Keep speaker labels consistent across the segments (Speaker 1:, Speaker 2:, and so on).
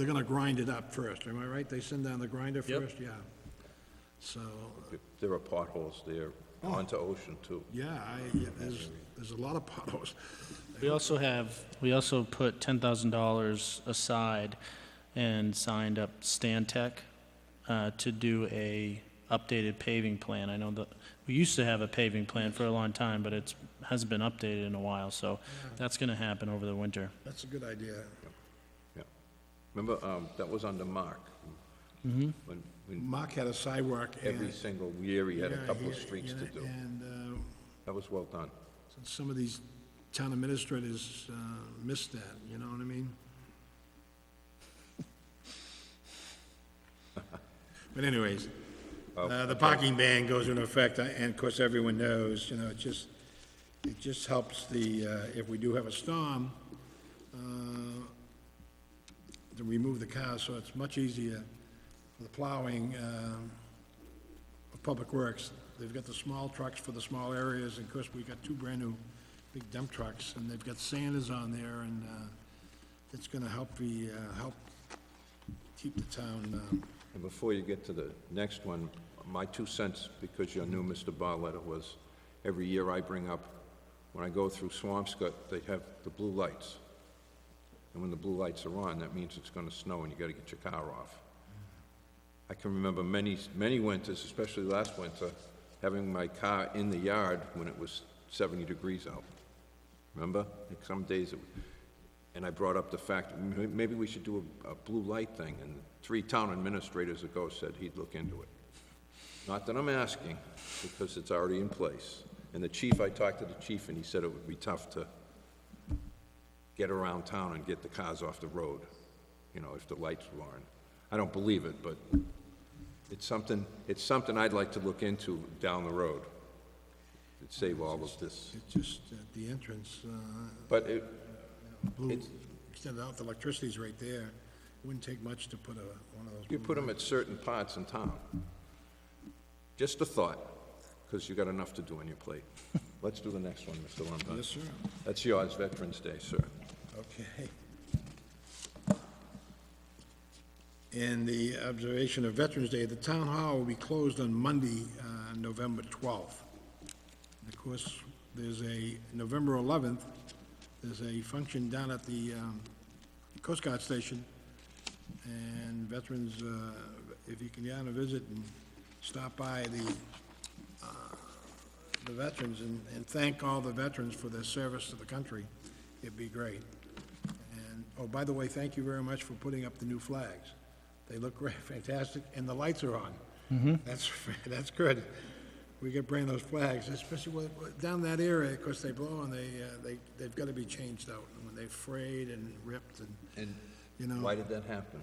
Speaker 1: They're gonna grind it up first, am I right? They send down the grinder
Speaker 2: Yep.
Speaker 1: first? Yeah. So,
Speaker 3: If There are potholes there
Speaker 1: Oh.
Speaker 3: onto Ocean too.
Speaker 1: yeah, I, yeah, there's, there's a lot of potholes.
Speaker 2: We also have, we also put ten thousand dollars aside and signed up Stantec uh, to do a updated paving plan. I know that, we used to have a paving plan for a long time, but it's, hasn't been updated in a while, so that's gonna happen over the winter.
Speaker 1: That's a good idea.
Speaker 3: Yeah. Remember, um, that was under Mark.
Speaker 1: Mm-hmm.
Speaker 3: When, when
Speaker 1: Mark had a sidewalk and...
Speaker 3: every single year he had a
Speaker 1: yeah,
Speaker 3: couple of
Speaker 1: he-
Speaker 3: streets to
Speaker 1: and-
Speaker 3: do.
Speaker 1: And, uh,
Speaker 3: That was well done.
Speaker 1: And Some of these town administrators uh, miss that, you know what I mean? But anyways, uh, the parking ban goes into effect, uh, and of course, everyone knows, you know, it just, it just helps the, uh, if we do have a storm, uh, to remove the cars, so it's much easier for the plowing, um, of Public Works. They've got the small trucks for the small areas, and of course, we got two brand-new big dump trucks, and they've got sanders on there, and uh, it's gonna help the, uh, help keep the town, um,
Speaker 3: And before you get to the next one, my two cents, because you're new, Mr. Barletta, was every year I bring up, when I go through Swampscott, they have the blue lights. And when the blue lights are on, that means it's gonna snow and you gotta get your car off. I can remember many, many winters, especially last winter, having my car in the yard when it was seventy degrees out. Remember? Like some days, it- and I brought up the fact, m- maybe we should do a, a blue light thing, and three town administrators ago said he'd look into it. Not that I'm asking, because it's already in place. And the chief, I talked to the chief, and he said it would be tough to get around town and get the cars off the road, you know, if the lights were on. I don't believe it, but it's something, it's something I'd like to look into down the road. It'd save all of this.
Speaker 1: it's just at the entrance, uh,
Speaker 3: But it,
Speaker 1: blue,
Speaker 3: It's-
Speaker 1: extended out, the electricity's right there. It Wouldn't take much to put a, one of those.
Speaker 3: You put them at certain parts in town. Just a thought, because you got enough to do on your plate. Let's do the next one, Mr.
Speaker 1: Yes,
Speaker 3: Lombard.
Speaker 1: sir,
Speaker 3: That's yours, Veterans Day, sir.
Speaker 1: okay. In the observation of Veterans Day, the town hall will be closed on Monday, uh, November 12th. And of course, there's a, November 11th, there's a function down at the um, Coast Guard Station, and veterans, uh, if you can get on a visit and stop by the, uh, the veterans and and thank all the veterans for their service to the country, it'd be great. And, oh, by the way, thank you very much for putting up the new flags. They look great, fantastic, and the lights are on.
Speaker 3: Mm-hmm.
Speaker 1: That's, that's good. We could bring those flags, especially with- with- down that area, of course, they blow and they, uh, they, they've got to be changed out, when they frayed and ripped and,
Speaker 3: And
Speaker 1: you know.
Speaker 3: why did that happen?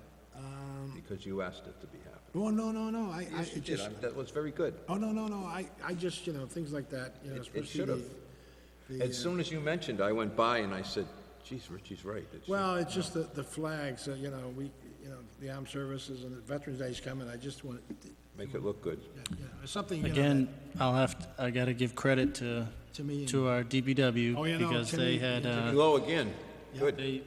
Speaker 3: Because you asked it to be happen.
Speaker 1: Oh, no, no, no, I, I,
Speaker 3: Yes, you
Speaker 1: it
Speaker 3: did.
Speaker 1: just,
Speaker 3: I'm- That was very good.
Speaker 1: oh, no, no, no, I, I just, you know, things like that, you know,
Speaker 3: It- It
Speaker 1: especially
Speaker 3: should have.
Speaker 1: the, uh,
Speaker 3: As soon as you mentioned, I went by and I said, geez, Richie's right. It should-
Speaker 1: well, it's just the, the flags, uh, you know, we, you know, the armed services and the Veterans Day's coming, I just want,
Speaker 3: Make it look good.
Speaker 1: yeah, yeah, something, you know.
Speaker 2: Again, I'll have, to- I gotta give credit to,
Speaker 1: To me and-
Speaker 2: to our
Speaker 1: Oh, you
Speaker 2: DBW,
Speaker 1: know,
Speaker 2: because
Speaker 1: to
Speaker 2: they
Speaker 1: me-
Speaker 2: had, uh,
Speaker 3: Hello again. Good.
Speaker 2: they,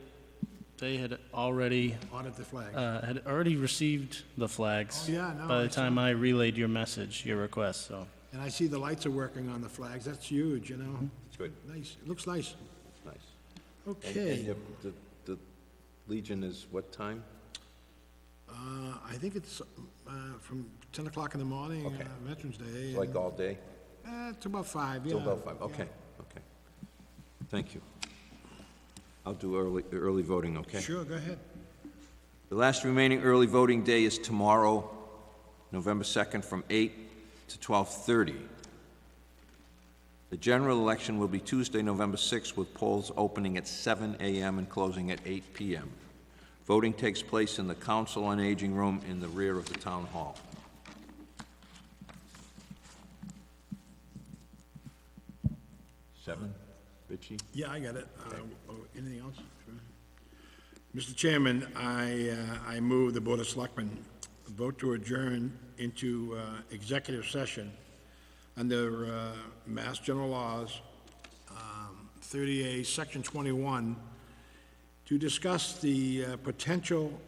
Speaker 2: they had already
Speaker 1: that Audit the flag.
Speaker 2: uh, had already received the flags.
Speaker 1: Oh, yeah, no,
Speaker 2: By
Speaker 1: I
Speaker 2: the time I relayed your message, your request, so.
Speaker 1: And I see the lights are working on the flags, that's huge, you know?
Speaker 3: It's good.
Speaker 1: Nice, it looks nice.
Speaker 3: Nice. And- And
Speaker 1: Okay,
Speaker 3: your- the, the Legion is what time?
Speaker 1: uh, I think it's, uh, from ten o'clock in the morning,
Speaker 3: Okay.
Speaker 1: uh, Veterans Day.
Speaker 3: It's Like
Speaker 1: and,
Speaker 3: all day?
Speaker 1: Uh, it's about five, yeah.
Speaker 3: Till about five, okay, okay. Thank you. I'll do early, early voting, okay?
Speaker 1: Sure, go ahead.
Speaker 3: The last remaining early voting day is tomorrow, November 2nd, from 8 to 12:30. The general election will be Tuesday, November 6th, with polls opening at 7 a.m. and closing at 8 p.m. Voting takes place in the Council on Aging Room in the rear of the Town Hall. Seven, Richie?
Speaker 1: Yeah, I got it. Uh, oh, Anything else? Sure. Mr. Chairman, I, uh, I move the Board of Selectmen vote to adjourn into uh, executive session under uh, Mass General Laws, um, 30A, Section 21, to discuss the uh, potential